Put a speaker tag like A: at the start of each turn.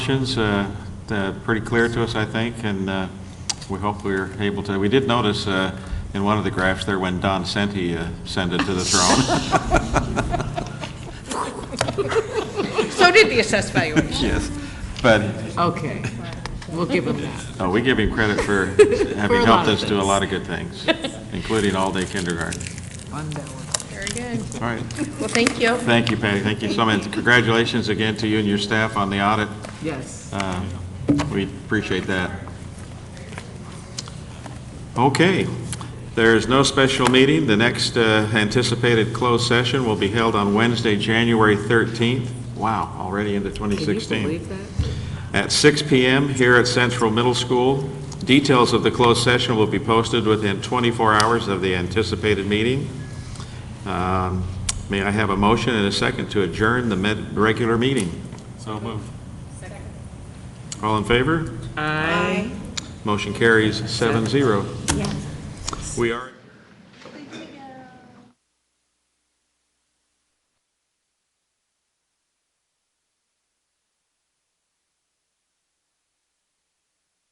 A: Questions, uh, they're pretty clear to us, I think, and uh, we hope we're able to, we did notice uh, in one of the graphs there when Don Senti uh, sent it to the throne.
B: So did the assessed valuation.
A: Yes. But,
C: Okay, we'll give them that.
A: no, we give him credit for having
C: lot
A: helped us
C: of
A: do a lot of good things, including all-day kindergarten.
B: Very good.
A: All right,
B: Well, thank you.
A: thank you, Patty, thank you so much. Congratulations again to you and your staff on the audit.
C: Yes.
A: Uh, We appreciate that. Okay, there's no special meeting. The next uh, anticipated closed session will be held on Wednesday, January 13th. Wow, already into
C: Can you
A: 2016.
C: believe that?
A: At 6 PM here at Central Middle School. Details of the closed session will be posted within 24 hours of the anticipated meeting. Um, May I have a motion and a second to adjourn the med- regular meeting? So moved. All in favor?
C: Aye.
A: Motion carries seven zero. We are.